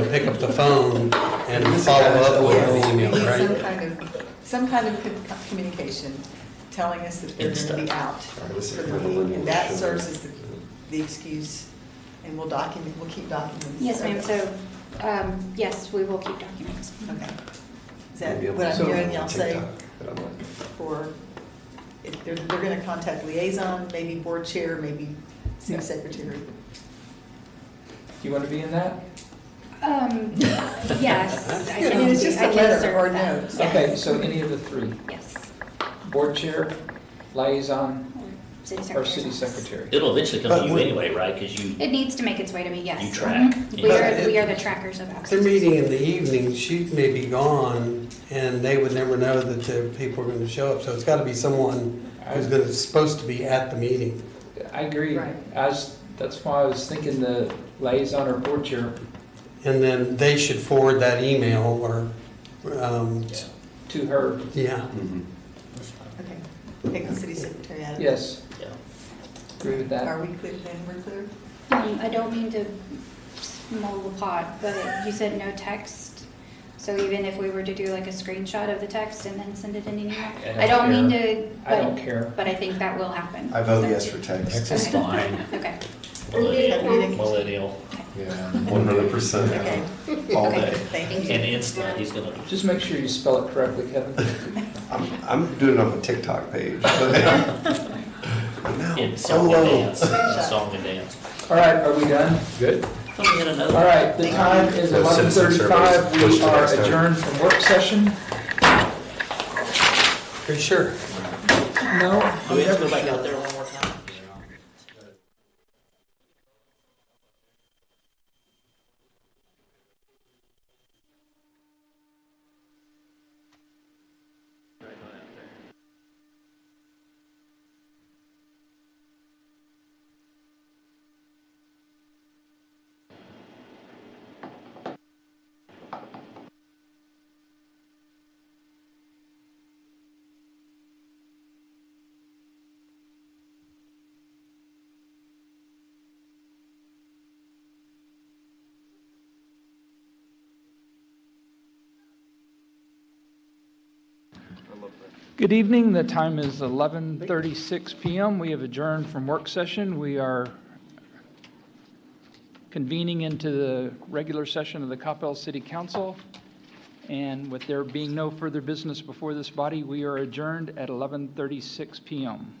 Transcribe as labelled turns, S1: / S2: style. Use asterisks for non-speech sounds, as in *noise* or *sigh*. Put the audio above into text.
S1: the phone and follow up with
S2: Yes,
S1: an
S2: we
S1: email,
S2: need Some
S1: right?
S2: kind of, some kind of con- communication telling us that they're going to be out
S3: Sorry, this is
S2: for the
S3: kind of a
S2: week. And that
S3: linear
S2: serves
S3: show.
S2: as the, the excuse, and we'll document, we'll keep documents.
S4: Yes,
S2: of
S4: ma'am,
S2: this.
S4: so, um, yes, we will keep documents.
S2: Okay. Is that
S3: Maybe I'll
S2: what I'm
S3: put it
S2: hearing
S3: on
S2: y'all say
S3: TikTok that I'm on.
S2: for, if they're, they're going to contact liaison, maybe board chair, maybe city secretary?
S5: You want to be in that?
S4: Um, yes.
S2: I mean, it's just a
S4: can
S2: letter
S4: serve
S2: or
S4: that.
S2: note.
S5: Okay, so any of the three,
S4: Yes,
S5: board chair, liaison,
S4: or city
S5: or
S4: secretary's
S5: city
S4: office.
S5: secretary?
S6: It'll eventually come
S3: But
S6: to you
S3: we-
S6: anyway, right? Because you,
S4: It needs to make its way to me, yes.
S6: You track.
S4: Mhm.
S6: You
S4: We
S1: track.
S4: are, we are the trackers of
S1: If
S4: absences.
S1: They're meeting in the evening, she may be gone, and they would never know that the people are gonna show up, so it's gotta be someone who's
S5: I-
S1: gonna, supposed to be at the meeting.
S5: I agree.
S2: Right.
S5: I was, that's why I was thinking the liaison or board chair
S1: And then they should forward that email or, um,
S5: to her.
S1: yeah.
S3: Mhm.
S2: Okay. Take the city secretary out of it.
S5: Yes,
S6: yeah.
S5: agree with that.
S2: Are we clear, then we're clear?
S4: Um, I don't mean to mull the pot, but you said no text. So even if we were to do like a screenshot of the text and then send it in an email? I don't mean to,
S5: I don't
S4: but,
S5: care.
S4: but I think that will happen.
S3: I vote yes for text.
S6: Text is fine.
S4: Okay.
S6: Millennial, millennial,
S3: Yeah, one hundred percent,
S2: Okay.
S3: all
S2: Okay,
S3: day.
S2: Thank
S6: and
S2: you.
S6: instant, he's gonna.
S5: Just make sure you spell it correctly, Kevin.
S3: I'm, I'm doing it on the TikTok page. *laughs* but- Now,
S6: In song and
S3: oh,
S6: dance, song and dance.
S5: All right, are we done? Good.
S6: I thought we had another.
S5: All right, the time is
S3: No
S5: eleven
S3: citizen surveys.
S5: thirty-five.
S3: Push
S5: We
S3: to
S5: are
S3: next time.
S5: adjourned from work session.
S1: Pretty sure.
S5: No.
S6: Do we have to go back out there one more time?
S5: Good evening. The time is 11:36 PM. We have adjourned from work session. We are convening into the regular session of the Coppell City Council. And with there being no further business before this body, we are adjourned at 11:36 PM.